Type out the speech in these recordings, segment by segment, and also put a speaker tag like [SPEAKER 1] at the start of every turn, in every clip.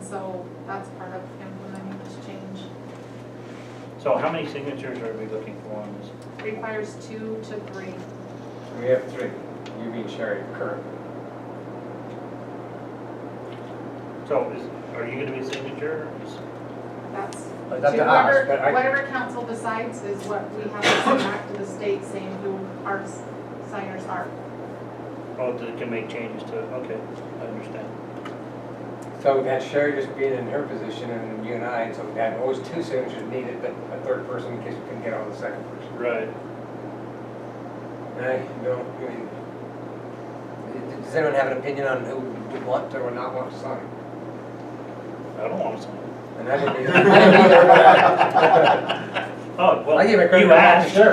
[SPEAKER 1] so that's part of implementing this change.
[SPEAKER 2] So how many signatures are we looking for on this?
[SPEAKER 1] Requires two to three.
[SPEAKER 3] We have three, you being Sherry currently.
[SPEAKER 2] So is, are you gonna be a signature? Is-
[SPEAKER 1] That's,
[SPEAKER 3] But that's not us,
[SPEAKER 1] whoever,
[SPEAKER 3] but I-
[SPEAKER 1] whatever council decides is what we have to send back to the state saying who our s- signers are.
[SPEAKER 2] Oh, that can make changes to, okay, I understand.
[SPEAKER 3] So we've had Sherry just being in her position and you and I, and so we've had always two signatures needed, but a third person in case we couldn't get on the second person.
[SPEAKER 2] Right.
[SPEAKER 3] And I don't, I mean, d- does anyone have an opinion on who would want or would not want to sign?
[SPEAKER 2] I don't want to sign.
[SPEAKER 3] And I didn't either. I didn't either, but
[SPEAKER 2] Oh,
[SPEAKER 3] I-
[SPEAKER 2] well,
[SPEAKER 3] I give it credit
[SPEAKER 2] you
[SPEAKER 3] to Matt,
[SPEAKER 2] asked.
[SPEAKER 3] sure.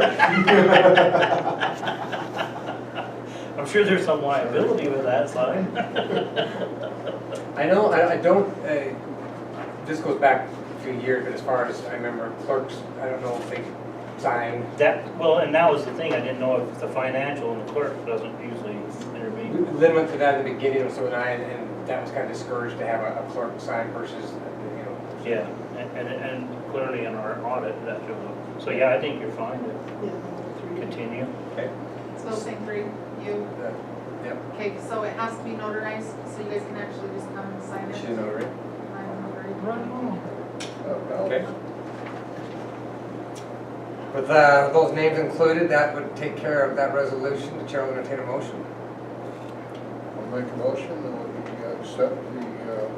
[SPEAKER 2] I'm sure there's some liability with that sign.
[SPEAKER 3] I know, I, I don't, uh, this goes back a few years, but as far as I remember clerks, I don't know if they signed.
[SPEAKER 2] That, well, and that was the thing, I didn't know if the financial and the clerk doesn't usually
[SPEAKER 3] We
[SPEAKER 2] intervene.
[SPEAKER 3] Lynn went through that in the beginning of so and I, and that was kind of discouraged to have a a clerk sign versus, uh, you know,
[SPEAKER 2] Yeah, and, and- and clearly in our audit, that showed up. So yeah, I think you're fine to continue.
[SPEAKER 1] Still saying three, you,
[SPEAKER 3] the, yep,
[SPEAKER 1] okay, so it has to be notarized, so you guys can actually just come and sign it.
[SPEAKER 3] she's an notary.
[SPEAKER 1] I'm notary.
[SPEAKER 3] Okay. With uh, those names included, that would take care of that resolution. The chair will entertain a motion.
[SPEAKER 4] I'll make a motion that we accept the uh,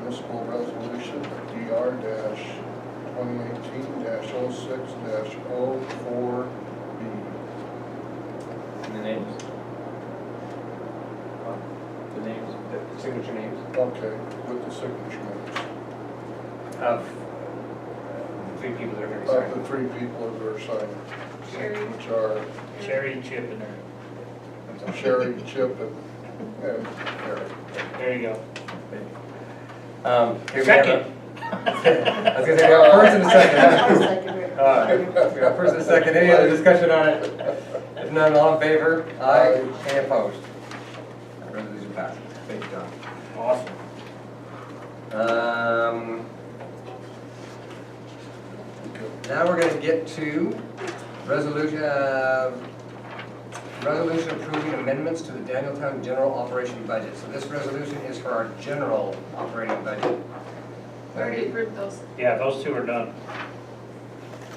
[SPEAKER 4] municipal resolution DR dash twenty eighteen dash oh six dash oh four B.
[SPEAKER 3] And the names? The names? The signature names
[SPEAKER 4] Okay, with the signatures
[SPEAKER 3] of uh, three people that are going to
[SPEAKER 4] of the
[SPEAKER 3] sign.
[SPEAKER 4] three people that are signing,
[SPEAKER 1] Sherry.
[SPEAKER 4] which are
[SPEAKER 2] Cherry chip in there.
[SPEAKER 4] Sherry, Chip, and and Eric.
[SPEAKER 2] There you go.
[SPEAKER 3] Um, here we have a-
[SPEAKER 2] Second.
[SPEAKER 3] I was going to say, we have a first and a second. Uh, We have a first and a second. Any other discussion on it? If none, all in favor? Aye. Any opposed? That Resolution passed. Thank you, John.
[SPEAKER 2] Awesome.
[SPEAKER 3] Um, Now we're gonna get to resolution, uh, resolution approving amendments to the Danieltown general operation budget. So this resolution is for our general operating budget.
[SPEAKER 1] We Already approved those.
[SPEAKER 2] Yeah, those two are done.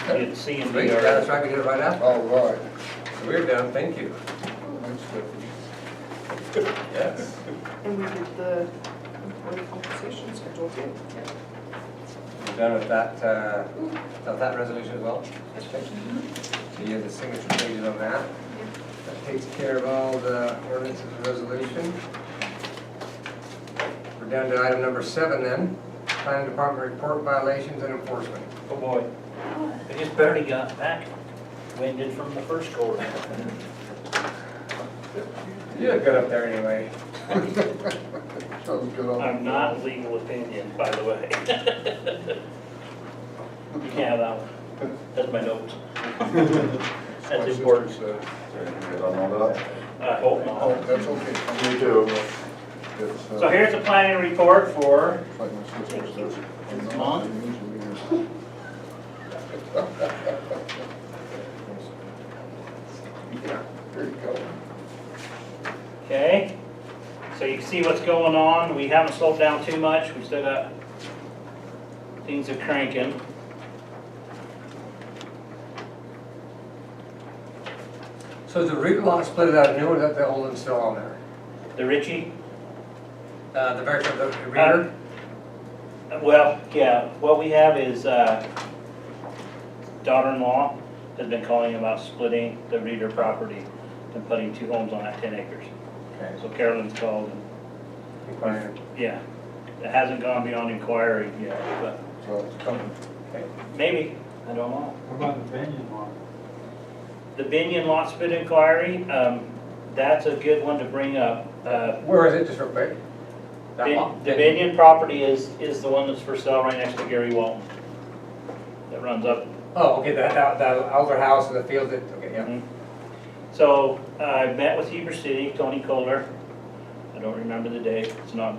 [SPEAKER 2] It's C and
[SPEAKER 3] Great,
[SPEAKER 2] D
[SPEAKER 3] yeah,
[SPEAKER 2] are,
[SPEAKER 3] that's right, we did it right after.
[SPEAKER 4] All right.
[SPEAKER 3] So We're done, thank you.
[SPEAKER 4] Thanks, Tiffany.
[SPEAKER 3] Yes.
[SPEAKER 5] And we did the employee compensation schedule too.
[SPEAKER 3] We're done with that, uh, with that resolution as well. So you have the signature pages on that. That takes care of all the ordinances and resolution. We're down to item number seven then, planning department report violations and enforcement.
[SPEAKER 2] oh boy. I just barely got back, winded from the first go around.
[SPEAKER 3] You look good up there anyway.
[SPEAKER 4] Sounds good on the
[SPEAKER 2] I'm not legal opinion, by the way. You can't have that one. That's my notes.
[SPEAKER 4] My
[SPEAKER 2] That's
[SPEAKER 4] sister
[SPEAKER 2] important.
[SPEAKER 4] said.
[SPEAKER 2] I hope
[SPEAKER 4] Oh,
[SPEAKER 2] not.
[SPEAKER 4] that's okay.
[SPEAKER 6] Me too.
[SPEAKER 4] It's, uh,
[SPEAKER 2] So here's the planning report for
[SPEAKER 4] like my sister says,
[SPEAKER 2] It's
[SPEAKER 4] I'm
[SPEAKER 2] long.
[SPEAKER 4] not usually here. Yeah, there you go.
[SPEAKER 2] Okay, so you can see what's going on, we haven't slowed down too much, we still got, things are cranking.
[SPEAKER 3] So is the root lot split it out new or is that the old one still on there?
[SPEAKER 2] The Ritchie,
[SPEAKER 3] Uh, the very, the reader?
[SPEAKER 2] uh, well, yeah, what we have is, uh, daughter-in-law has been calling about splitting the Reeder property and putting two homes on that ten acres.
[SPEAKER 3] Okay.
[SPEAKER 2] So Carolyn's called, and,
[SPEAKER 3] Inquiring.
[SPEAKER 2] yeah, it hasn't gone beyond inquiry yet, but
[SPEAKER 4] So it's coming.
[SPEAKER 2] maybe, I don't know.
[SPEAKER 7] What about the venue law?
[SPEAKER 2] The Binion lot split inquiry, um, that's a good one to bring up. Uh,
[SPEAKER 3] Where is it, just real quick? That
[SPEAKER 2] Bin-
[SPEAKER 3] lot?
[SPEAKER 2] The Binion property is, is the one that's for sale right next to Gary Walton. That runs up.
[SPEAKER 3] Oh, okay, that, that, that older house and the field that, okay, yeah.
[SPEAKER 2] So I met with Heber City, Tony Kohler. I don't remember the date, it's not